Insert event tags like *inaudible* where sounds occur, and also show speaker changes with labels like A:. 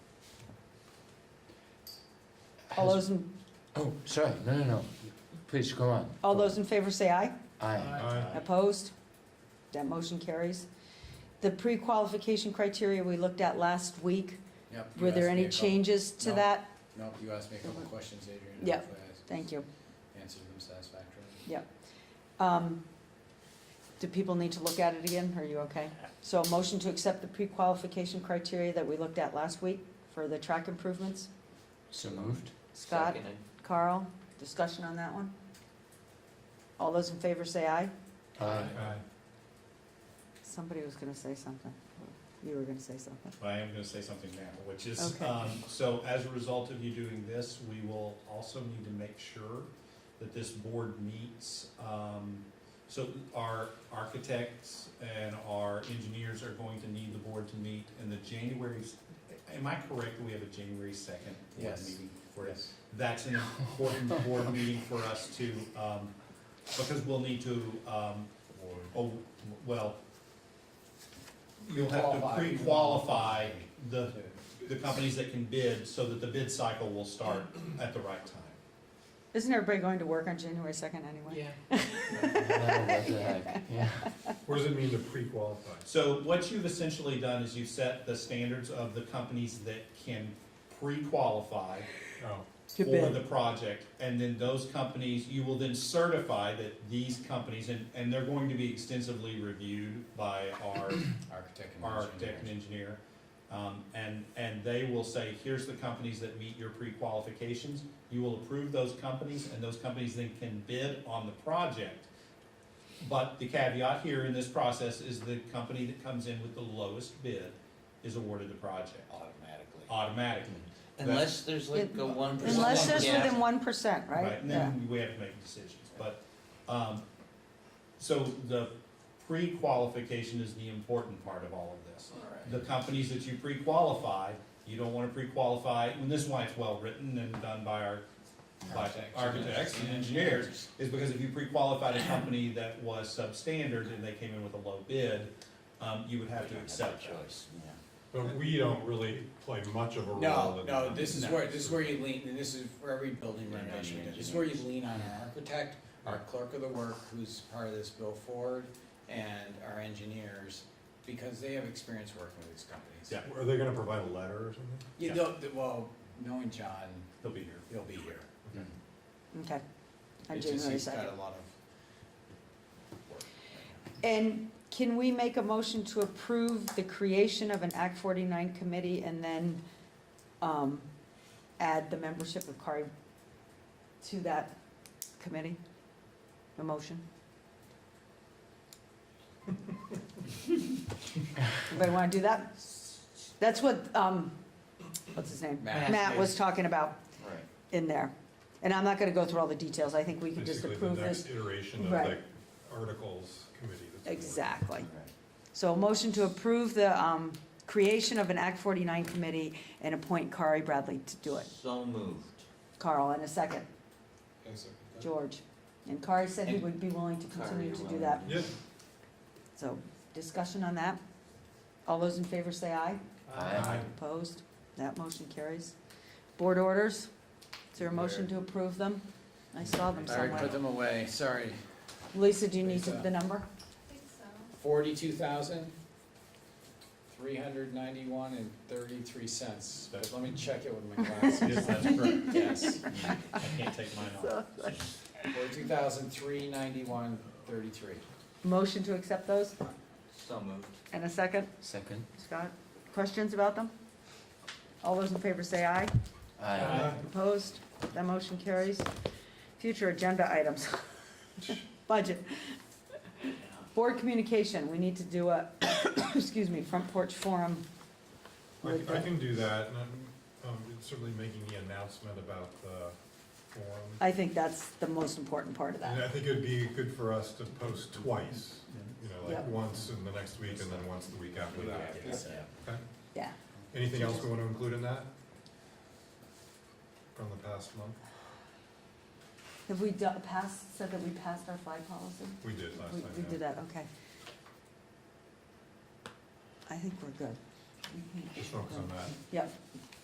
A: All those, in-
B: Oh, sorry, no, no, no, please go on.
A: all those in favor say aye.
B: Aye.
A: Opposed? That motion carries. The pre-qualification criteria we looked at last week,
C: Yep, you
A: were there
C: asked me
A: any
C: a couple-
A: changes to
C: No.
A: that?
C: No, you asked me a couple questions, Adrian. and
A: Yeah.
C: hopefully I
A: Thank you.
C: Answered them satisfactorily.
A: Um, Do people need to look at it again? Are you okay? So a motion to accept the pre-qualification criteria that we looked at last week for the track improvements?
B: So moved?
A: Scott, Carl, discussion on that one? All those in favor say aye.
B: Aye.
A: Somebody was gonna say something. You were gonna say something.
D: But I am gonna say something now, which is,
A: Okay.
D: um, so as a result of you doing this, we will also need to make sure that this board meets, um, so our architects and our engineers are going to need the board to meet in the January, am I correct, that we have a January second board
C: Yes.
D: meeting for this? that's an important board meeting for us to, um, because we'll need to, um, oh, well, you'll have to
C: Qualify.
D: pre-qualify the,
C: Okay.
D: the companies that can bid so that the bid cycle will start at the right time.
A: Isn't everybody going to work on January second anyway?
E: Yeah.
B: Yeah.
F: What does it mean to pre-qualify?
D: So what you've essentially done is you've set the standards of the companies that can pre-qualify
F: Oh,
A: To
D: for
A: bid.
D: the project, and then those companies, you will then certify that these companies, and, and they're going to be extensively reviewed by our
C: Architect and
D: our
C: engineer.
D: architect and engineer. Um, and, and they will say, here's the companies that meet your pre-qualifications. You will approve those companies and those companies then can bid on the project. But the caveat here in this process is the company that comes in with the lowest bid is awarded the project
C: Automatically.
D: automatically.
E: Unless there's like a one percent.
A: Unless there's
E: gap.
A: within one percent, right?
D: And
A: Yeah.
D: then we have to make decisions, but, um, so the pre-qualification is the important part of all of this.
C: Alright.
D: the companies that you pre-qualify, you don't wanna pre-qualify, and this is why it's well-written and done by our, by
C: Architects.
D: architects and engineers, is because if you pre-qualified a company that was substandard and they came in with a low bid, um, you would have to accept that.
C: choice, yeah.
F: but we don't really play much of a role
C: No,
F: in that.
C: no, this is
D: No.
C: where, this is where you lean, and this is for every building renovation, we do. this is where you lean on our architect, our clerk of the work, who's part of this, Bill Ford, and our engineers, because they have experience working with these companies.
D: Yeah.
F: Are they gonna provide a letter or something?
C: You
D: Yeah.
C: know, th- well, knowing John,
D: They'll be here.
C: he'll be here.
B: Hmm.
A: Okay. On
C: It's just
A: January
C: he's got
A: second.
C: a lot of work right now.
A: And can we make a motion to approve the creation of an Act forty-nine committee and then, um, add the membership of CARI to that committee? A motion?
C: *laughs*
A: Anybody wanna do that? That's what, um, what's his name?
C: Matt.
A: Matt was talking about
C: Right.
A: in there. And I'm not gonna go through all the details, I think we can just
F: Basically, the
A: approve
F: next
A: this.
F: iteration of the
A: Right.
F: articles committee. that's gonna work.
A: Exactly.
C: Right.
A: So a motion to approve the um, creation of an Act 49 committee and appoint Kari Bradley to do it.
E: So moved.
A: Carl, in a second,
C: Yes, sir.
A: George. And Kari said he would be willing to continue to do that.
F: Yeah,
A: So discussion on that? All those in favor say aye.
B: Aye.
A: Opposed? That motion carries. Board orders? Is there a motion to approve them? I saw them
C: I already
A: somewhere.
C: put them away, sorry.
A: Lisa, do you need the number?
C: Forty-two thousand, three hundred ninety-one and thirty-three cents. But let me check it with my
D: Yes, *laughs*
C: glasses.
D: that's correct.
C: Yes,
D: I can't take mine off.
C: forty-two thousand, three ninety-one, thirty-three.
A: Motion to accept those?
E: So moved.
A: And a second,
B: Second?
A: Scott? Questions about them? All those in favor say aye.
B: Aye.
A: Opposed? That motion carries. Future agenda items. *laughs* Budget. Board communication, we need to do a, *coughs* excuse me, front porch forum.
F: I
A: with
F: c- I
A: the-
F: can do that, and I'm, um, certainly making the announcement about the forum.
A: I think that's the most important part of
F: And
A: that.
F: I think it'd be good for us to post twice, you know,
A: Yep.
F: like once in the next week and then once the week after that. Okay.
A: Yeah.
F: Anything else we want to include in that? From the past month?
A: Have we do- passed, said that we passed our flag policy?
F: We did last
A: We,
F: time.
A: we
F: yeah.
A: did that, okay. I think we're good.
F: Just focus on that.
A: Yep.